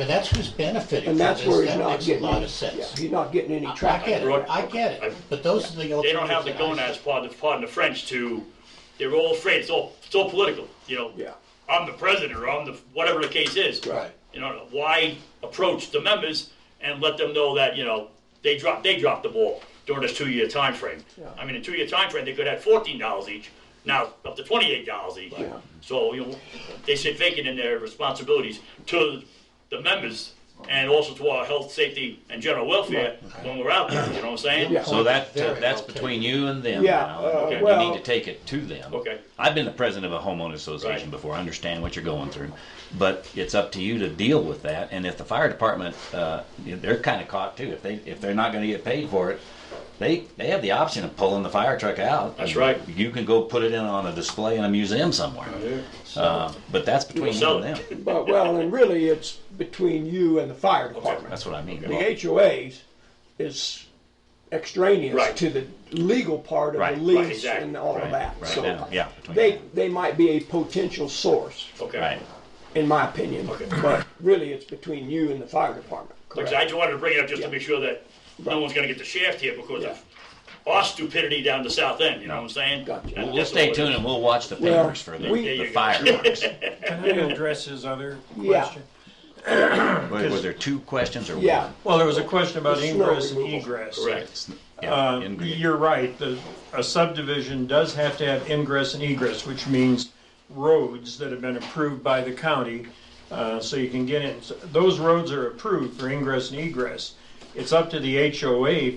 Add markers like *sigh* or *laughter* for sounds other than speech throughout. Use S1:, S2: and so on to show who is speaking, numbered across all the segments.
S1: But that's who's benefiting from
S2: And that's
S1: this,
S2: where he's
S1: that
S2: not
S1: makes a
S2: getting,
S1: lot
S2: any-
S1: of
S2: yeah,
S1: sense.
S2: he's not getting any
S1: I I get
S2: traffic.
S1: it, I get it, but those are the alternatives.
S3: They don't have the
S1: that I
S3: gonads,
S1: see.
S3: pardon, pardon the French, to, they're all afraid, it's all, it's all political, you know?
S2: Yeah.
S3: I'm the president, or I'm the, whatever the case is.
S1: Right.
S3: You know, why approach the members and let them know that, you know, they dropped, they dropped the ball during this two-year time frame. I mean, a two-year time frame, they could have fourteen dollars each, now up to twenty-eight dollars each.
S2: Yeah.
S3: So, you know, they sit vacant in their responsibilities to the members and also to our health, safety, and general welfare when we're out there, you know what I'm saying?
S2: Yeah.
S4: So that, uh,
S1: Very
S4: that's
S1: well taken.
S4: between you and them
S2: Yeah,
S4: now.
S2: uh,
S4: Okay, You
S2: well-
S4: need to take it to them.
S3: Okay.
S4: I've been the president of a homeowner association
S3: Right.
S4: before, I understand what you're going through. But it's up to you to deal with that, and if the fire department, uh, they're kinda caught too, if they, if they're not gonna get paid for it, they, they have the option of pulling the fire truck out.
S3: That's right.
S4: You can go put it in on a display in a museum somewhere. Uh, But that's between you
S3: Sell
S4: and them,
S3: it.
S2: But, well, and really, it's between you and the fire department.
S4: that's what
S3: *laughs*
S4: I mean.
S2: The HOAs is extraneous
S3: Right.
S2: to the legal part of
S4: Right,
S2: the
S4: right,
S2: lease
S3: exactly,
S2: and all of
S4: right,
S2: that.
S4: right,
S2: So
S4: yeah, yeah, between
S2: they,
S4: them.
S2: they might be a potential source,
S3: Okay.
S4: Right.
S2: in my opinion, but really, it's between you and the fire department.
S3: Because
S2: Correct.
S3: I just wanted to bring it up just to
S2: Yeah.
S3: make sure that
S2: Right.
S3: no one's gonna get the shaft here because
S2: Yeah.
S3: of our stupidity down the south end, you know what I'm saying?
S2: Gotcha.
S3: And
S2: We'll
S4: We'll
S3: that's
S4: stay
S3: all it
S4: tuned
S3: is.
S4: and we'll watch the
S2: Well,
S4: papers for the,
S2: we-
S3: There you
S4: the
S3: go.
S4: fireworks.
S5: Can I address his other
S2: Yeah.
S5: question?
S4: Were were there two questions or one?
S2: Yeah,
S5: Well, there was a question about
S2: The snow
S5: ingress and
S2: removal.
S5: egress.
S3: Correct.
S4: Yeah,
S5: Uh,
S4: in green.
S5: You're right, the, a subdivision does have to have ingress and egress, which means roads that have been approved by the county, uh, so you can get in. So Those roads are approved for ingress and egress. It's up to the HOA f-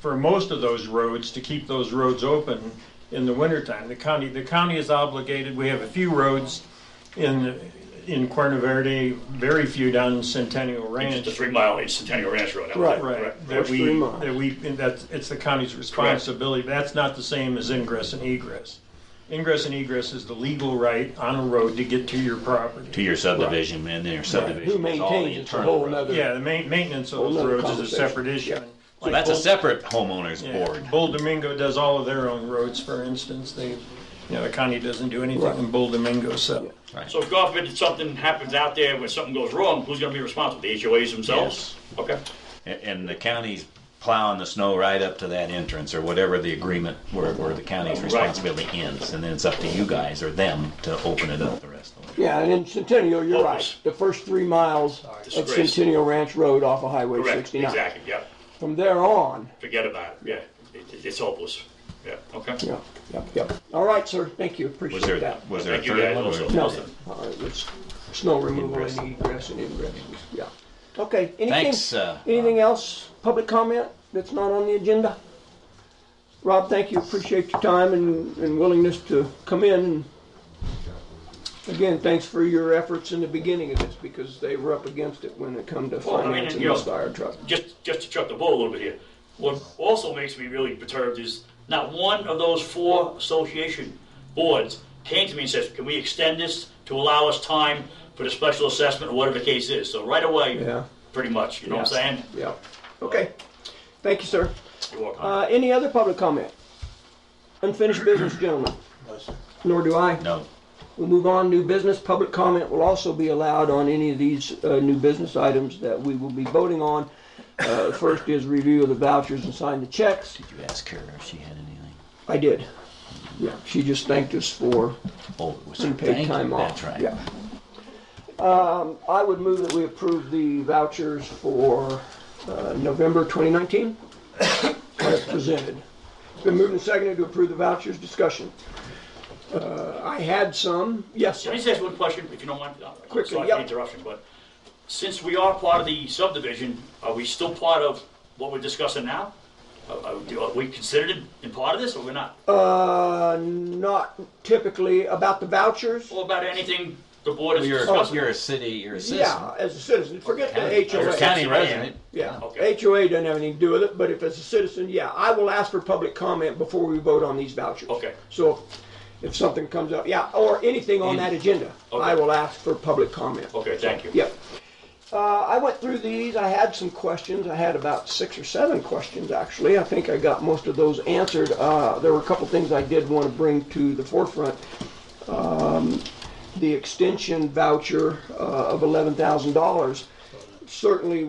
S5: for most of those roads to keep those roads open in the wintertime. The county, the county is obligated, we have a few roads in, in Cuerna Verde, very few down in Centennial Ranch.
S3: Just a three mile, it's Centennial Ranch Road. that was
S2: Right.
S3: it,
S5: Right, that
S2: First
S5: we,
S2: three months.
S5: that we, and that's, it's the county's responsibility, that's not the same as ingress and egress. Ingress and egress is the legal right on a road to get to your
S4: to
S5: property.
S4: your subdivision and then your subdivision.
S2: who
S4: is all the
S2: maintains it's a
S4: internal
S2: whole
S4: road.
S2: nother.
S5: Yeah, the ma- maintenance of
S2: Whole
S5: those
S2: other
S5: roads is a separate
S2: conversation.
S5: issue.
S2: Yeah.
S5: And
S4: So
S5: like
S4: that's a
S5: Bull-
S4: separate homeowners
S5: yeah,
S4: board.
S5: Bull Domingo does all of their own roads, for instance, they, you know, the county doesn't do
S2: Right.
S5: anything in Bull Domingo, so.
S3: So if God forbid something happens out there, when something goes wrong, who's gonna be responsible? The HOAs themselves? Okay.
S4: And- And the county's plowing the snow right up to that entrance or whatever the agreement where, where the county's responsibility ends. And then it's up to you guys or them to open it up the rest of the way.
S2: yeah, and in Centennial, you're right,
S3: Focus.
S2: the first three miles of
S3: Disgrace.
S2: Centennial Ranch Road off of Highway
S3: Correct,
S2: sixty-nine.
S3: exactly, yeah.
S2: From there on,
S3: Forget about it, yeah. It- it- It's hopeless, yeah, okay.
S2: yeah, yep, yep. All right, sir, thank you,
S4: Was
S2: appreciate
S4: there,
S2: that.
S4: was there a
S3: Thank you
S4: third
S3: guys
S4: one?
S3: also.
S4: or-
S2: No, all right, let's, snow removal
S4: Ingress.
S2: and egress and ingress, yeah. Okay,
S4: Thanks,
S2: anything,
S4: uh,
S2: anything else, public comment that's not on the agenda? Rob, thank you, appreciate your time and, and willingness to come in. and Again, thanks for your efforts in the beginning of this, because they were up against it when it come to
S3: Well, I mean,
S2: financing
S3: you know-
S2: this fire truck.
S3: just just to chuck the ball a little bit here. What also makes me really perturbed is not one of those four association boards came to me and says, "Can we extend this to allow us time for the special assessment or whatever the case is?" So right away,
S2: Yeah.
S3: pretty much. You know what I'm saying?
S2: Yeah, okay, thank you, sir.
S3: You're welcome.
S2: Uh, any other public comment? Unfinished business, gentlemen? Nor do I.
S4: No.
S2: We'll move on, new business, public comment will also be allowed on any of these uh, new business items that we will be voting on. Uh, First is review of the vouchers and sign the checks.
S4: Did you ask her if she had anything?
S2: I did. Yeah, she just thanked us for
S4: Oh, it was her.
S2: unpaid
S4: Thank
S2: time
S4: you,
S2: off.
S4: that's right.
S2: Yeah. Um, I would move that we approve the vouchers for uh, November
S4: *coughs*
S2: 2019 as presented. It's been moved and seconded to approve the vouchers, discussion. Uh, I had some, yes,
S3: Can I
S2: sir.
S3: just ask one question, if you don't mind? Uh,
S2: Quickly,
S3: Sorry for
S2: yep.
S3: the interruption, but since we are part of the subdivision, are we still part of what we're discussing now? Uh, Are, are- are we considered in part of this, or we're not?
S2: Uh, not typically about the vouchers.
S3: Or about anything the board is
S4: You're,
S3: discussing?
S4: you're a city, you're a citizen.
S2: Oh, Yeah, as a citizen, forget the
S4: County- You're a
S2: HOA.
S4: county
S3: Yeah.
S4: resident.
S2: Yeah,
S3: Okay.
S2: HOA doesn't have anything to do with it, but if it's a citizen, yeah, I will ask for public comment before we vote on these vouchers.
S3: Okay.
S2: So if something comes up, yeah, or anything on that agenda, I
S3: Okay.
S2: will ask for public comment.
S3: Okay, thank you.
S2: Yep. Uh, I went through these, I had some questions, I had about six or seven questions, actually. I think I got most of those answered. Uh, There were a couple things I did want to bring to the forefront. Um, The extension voucher uh, of $11,000. certainly